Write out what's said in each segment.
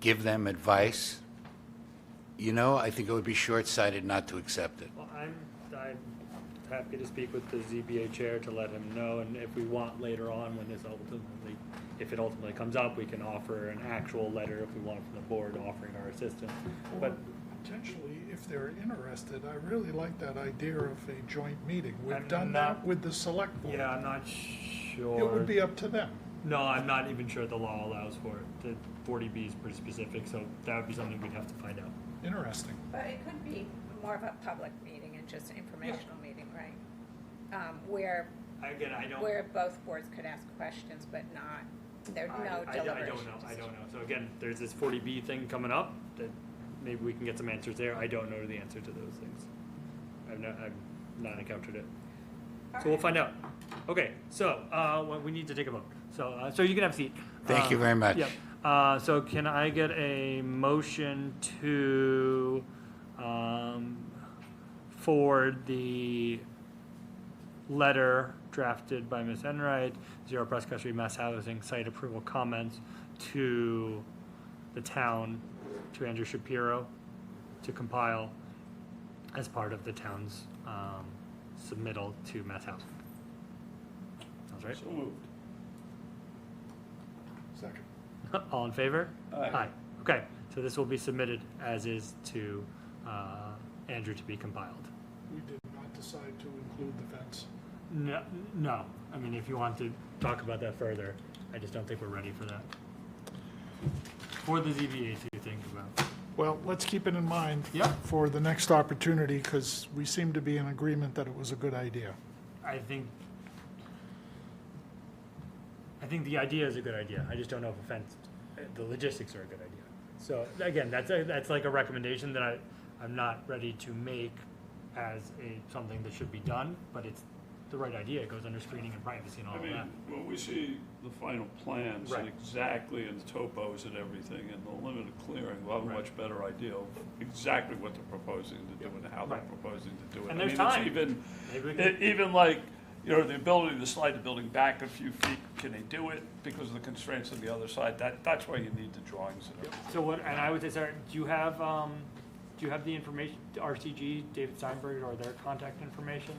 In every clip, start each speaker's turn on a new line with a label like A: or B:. A: give them advice, you know, I think it would be short-sighted not to accept it.
B: Well, I'm, I'm happy to speak with the ZBA chair to let him know, and if we want later on, when this ultimately, if it ultimately comes up, we can offer an actual letter if we want from the board offering our assistance. But,
C: Or potentially, if they're interested, I really like that idea of a joint meeting.
B: I'm
C: We've done that
B: not-
C: with the select board.
B: yeah, I'm not
C: It
B: sure.
C: would be up to them.
B: No, I'm not even sure the law allows for it. The forty B is pretty specific, so that would be something we'd have to find out.
C: Interesting.
D: But it could be more of a public meeting and just an informational meeting, right? Um, Where,
B: Again, I don't.
D: where both boards could ask questions, but not, there'd
B: I- I-
D: no
B: I
D: deliberation.
B: don't know, I
D: decision.
B: don't know. So again, there's this forty B thing coming up, that maybe we can get some answers there. I don't know the answer to those things. I've not, I've not encountered it. So we'll
D: Alright.
B: find out. Okay, so, uh, well, we need to take a vote. So, uh, so you can have a seat.
A: Thank you
B: Uh,
A: very much.
B: Yep. Uh, so can I get a motion to, um, forward the letter drafted by Ms. Enright, Zero Prescott Street Mass Housing Site Approval Comments to the town, to Andrew Shapiro, to compile as part of the town's um, submittal to Mass Housing. Sounds right?
E: So moved.
C: Second.
B: All in favor?
E: Aye.
B: Okay, so this will be submitted as is to uh, Andrew to be compiled.
C: We did not decide to include the fence.
B: No, no. I mean, if you want to talk about that further, I just don't think we're ready for that. For the ZBA to think about.
C: Well, let's keep it in mind
B: Yeah.
C: for the next opportunity, because we seem to be in agreement that it was a good idea.
B: I think, I think the idea is a good idea. I just don't know if offense, the logistics are a good idea. So again, that's a, that's like a recommendation that I, I'm not ready to make as a, something that should be done, but it's the right idea. It goes under screening and privacy and all
E: I
B: of
E: mean,
B: that.
E: when we see the final plans and
B: Right.
E: exactly, and the topos and everything, and the limit of clearing, we'll have a
B: Right.
E: much better idea of exactly what they're proposing to do and how they're
B: Right.
E: proposing to do it.
B: And
E: I
B: there's
E: mean, it's
B: time.
E: Even,
B: Maybe we
E: e-
B: can,
E: even like, you know, the ability to slide the building back a few feet, can they do it because of the constraints on the other side? That, that's why you need the drawings and everything.
B: so what, and I would say, Sarah, do you have, um, do you have the information, RCG, David Steinberg, or their contact information?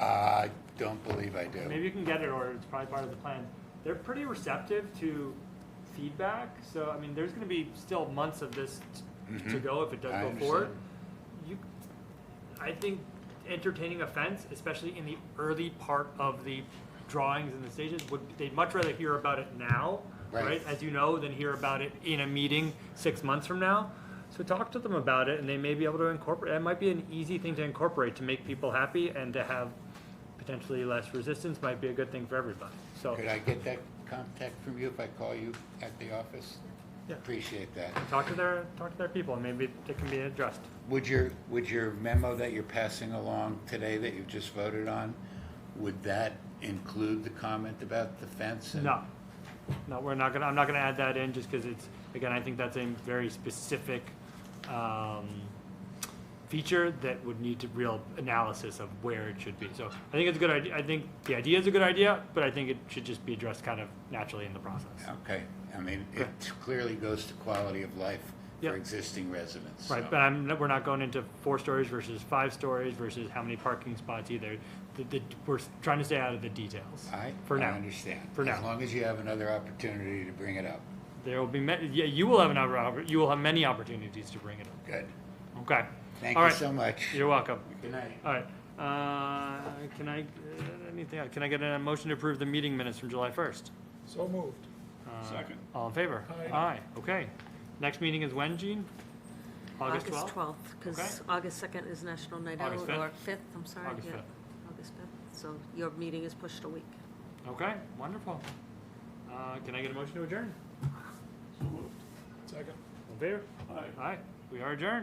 A: I don't believe I do.
B: Maybe you can get it, or it's probably part of the plan. They're pretty receptive to feedback, so I mean, there's going to be still months of this t- to go if it does
A: Mm-hmm. I
B: go
A: understand.
B: forward. You, I think entertaining a fence, especially in the early part of the drawings and the stages, would they'd much rather hear about it now,
A: Right.
B: right? As you know, than hear about it in a meeting six months from now. So talk to them about it, and they may be able to incorporate. It might be an easy thing to incorporate to make people happy and to have potentially less resistance might be a good thing for everybody. So
A: Could I get that contact from you if I call you at the office?
B: Yeah.
A: Appreciate that.
B: talk to their talk to their people, and maybe it can be addressed.
A: Would your, would your memo that you're passing along today that you've just voted on, would that include the comment about the fence? and-
B: No, no, we're not gonna, I'm not gonna add that in just because it's, again, I think that's a very specific, um, feature that would need to real analysis of where it should be. So I think it's a good idea, I think the idea is a good idea, but I think it should just be addressed kind of naturally in the process.
A: Okay, I mean, it clearly goes to quality of life
B: Yeah.
A: for existing residents. so-
B: Right, but I'm, we're not going into four stories versus five stories versus how many parking spots either. The, the, we're trying to stay out of the details.
A: I,
B: For
A: I
B: now.
A: understand.
B: For
A: As
B: now.
A: long as you have another opportunity to bring it up.
B: There will be, ma- yeah, you will have an, oppor- you will have many opportunities to bring it up.
A: Good.
B: Okay.
A: Thank
B: All
A: you
B: right.
A: so much.
B: You're welcome.
A: Good night.
B: All right, uh, can I, uh, anything, can I get a motion to approve the meeting minutes from July 1st?
C: So moved.
B: Uh,
E: Second.
B: All in favor?
C: Aye.
B: okay. Next meeting is when, Gene? August 12th?
F: because
B: Okay.
F: August 2nd is National Night Out,
B: August 5th?
F: or 5th, I'm sorry.
B: August
F: yeah,
B: 5th.
F: August 5th, so your meeting is pushed a week.
B: Okay, wonderful. Uh, Can I get a motion to adjourn?
E: So moved.
C: Second.
B: All in favor?
E: Aye.
B: Aye, we are adjourned.